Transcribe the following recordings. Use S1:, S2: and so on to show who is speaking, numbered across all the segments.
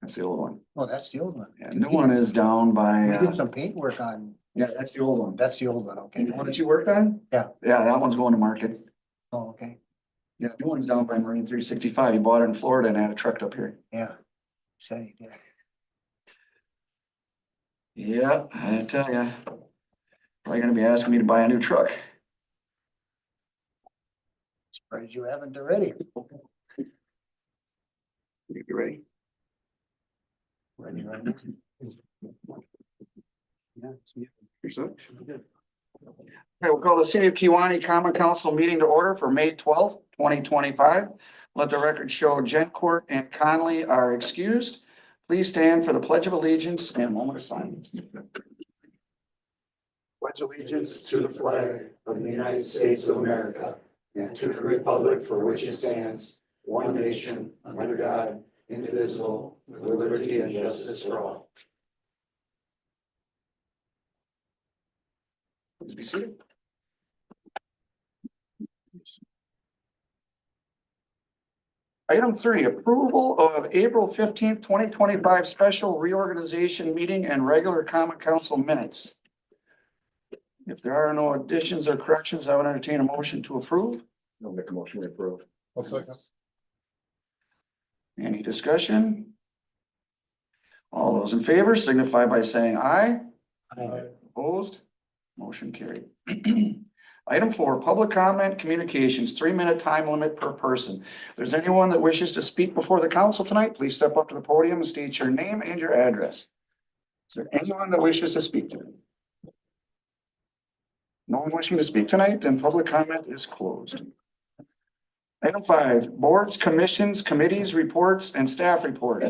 S1: That's the old one.
S2: Oh, that's the old one.
S1: Yeah, new one is down by,
S2: We did
S1: uh,
S2: some paint work on,
S1: yeah, that's the old one. That
S2: that's the old one, okay.
S1: one that you worked on?
S2: Yeah.
S1: Yeah, that one's going to market.
S2: Oh, okay,
S1: Yeah, new one's down by Marine three sixty-five. You bought it in Florida and had it trucked up here.
S2: yeah. Say, yeah.
S1: Yeah, I tell ya. Probably gonna be asking me to buy a new truck.
S2: Surprised you haven't already.
S1: You ready?
S2: Ready, ready.
S1: Here's it. Okay, we'll call the City of Kiwanee Common Council meeting to order for May twelfth, twenty twenty-five. Let the record show Gencourt and Conley are excused. Please stand for the Pledge of Allegiance and a moment of silence.
S3: pledge allegiance to the flag of the United States of America and to the republic for which it stands, one nation, under God, indivisible, with liberty and justice for all.
S1: Please be seated. Item three, approval of April fifteenth, twenty twenty-five special reorganization meeting and regular common council minutes. If there are no additions or corrections, I would entertain a motion to approve.
S4: I'll make a motion to approve. I'll second.
S1: Any discussion? All those in favor signify by saying aye. Opposed? Motion carried. Item four, public comment communications, three-minute time limit per person. If there's anyone that wishes to speak before the council tonight, please step up to the podium and state your name and your address. Is there anyone that wishes to speak to? No one wishing to speak tonight, then public comment is closed. Item five, boards, commissions, committees, reports, and staff report.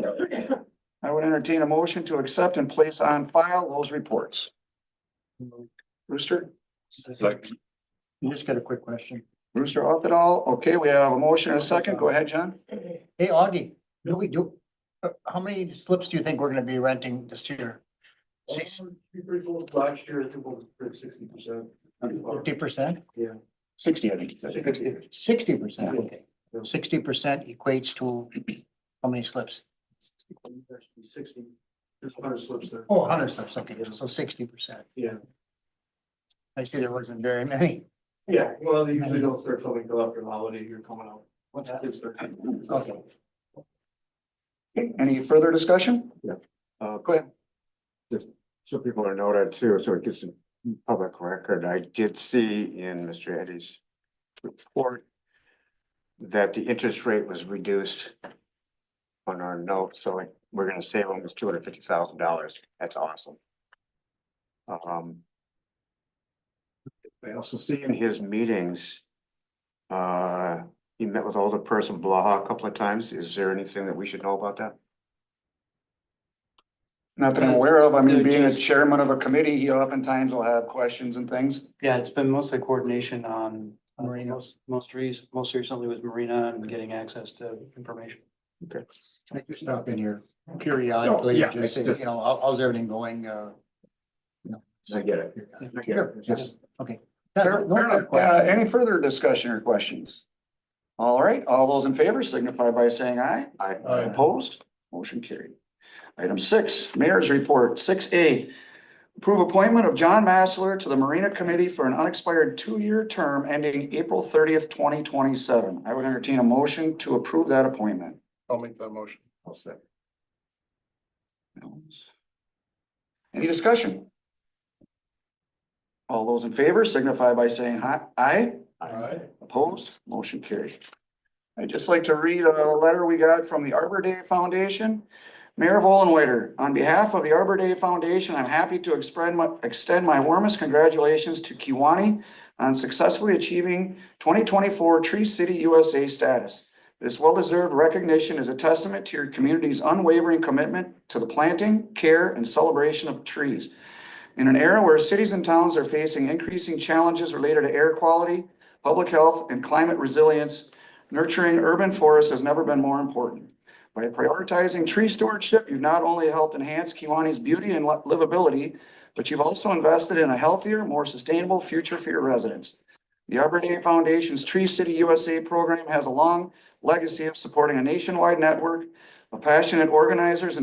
S1: I would entertain a motion to accept and place on file those reports. Rooster?
S4: Second.
S2: You just got a quick question.
S1: Rooster up at all? Okay, we have a motion and a second. Go ahead, John.
S2: Hey, Augie, do we do, uh, how many slips do you think we're gonna be renting this year?
S3: Last year, I think it was sixty percent.
S2: Fifty percent,
S1: Sixty, I think. you said.
S2: sixty percent,
S3: Yeah.
S2: okay. Sixty percent equates to how many slips?
S3: Sixty, there's a hundred slips there.
S2: Oh, hundred slips, okay, so sixty percent.
S3: Yeah.
S2: I see there wasn't very many.
S3: Yeah, well, they usually don't start filming till after the holiday, you're coming out. Once the kids start.
S2: Okay.
S1: Any further discussion?
S4: Uh,
S1: Go ahead.
S4: so people are noted too, so it gets in public record. I did see in Mr. Eddie's report that the interest rate was reduced on our note, so like, we're gonna save almost two hundred fifty thousand dollars. That's awesome. Um, I also see in his meetings, uh, he met with older person Blaha a couple of times. Is there anything that we should know about that?
S1: Not that I'm aware of. I mean,
S5: They're
S1: being a
S5: just-
S1: chairman of a committee, he oftentimes will have questions and things.
S5: Yeah, it's been mostly coordination on uh,
S2: Marina.
S5: most, most reas most recently with Marina and getting access to information.
S2: I just stop in here periodically,
S4: yeah,
S2: and just
S4: it's
S2: say, you
S4: just-
S2: know, how, how's everything going, uh?
S4: I get it. I get it.
S2: Sure,
S4: It's just-
S2: Okay.
S1: Fair-
S2: No
S1: fair
S2: other
S1: enough. Uh,
S2: questions.
S1: any further discussion or questions? All right, all those in favor signify by saying aye.
S4: I-
S1: Opposed? Motion carried. Item six, Mayor's Report, six A. Approve appointment of John Massler to the Marina Committee for an unexpired two-year term ending April thirtieth, twenty twenty-seven. I would entertain a motion to approve that appointment.
S4: I'll make that motion. I'll second.
S1: Any discussion? All those in favor signify by saying hi- aye.
S3: Alright.
S1: Opposed? Motion carried. I'd just like to read a letter we got from the Arbor Day Foundation. Mayor Volenweider, on behalf of the Arbor Day Foundation, I'm happy to extend my, extend my warmest congratulations to Kiwani on successfully achieving twenty twenty-four Tree City USA status. This well-deserved recognition is a testament to your community's unwavering commitment to the planting, care, and celebration of trees. In an era where cities and towns are facing increasing challenges related to air quality, public health, and climate resilience, nurturing urban forests has never been more important. By prioritizing tree stewardship, you've not only helped enhance Kiwanis' beauty and li- livability, but you've also invested in a healthier, more sustainable future for your residents. The Arbor Day Foundation's Tree City USA program has a long legacy of supporting a nationwide network of passionate organizers and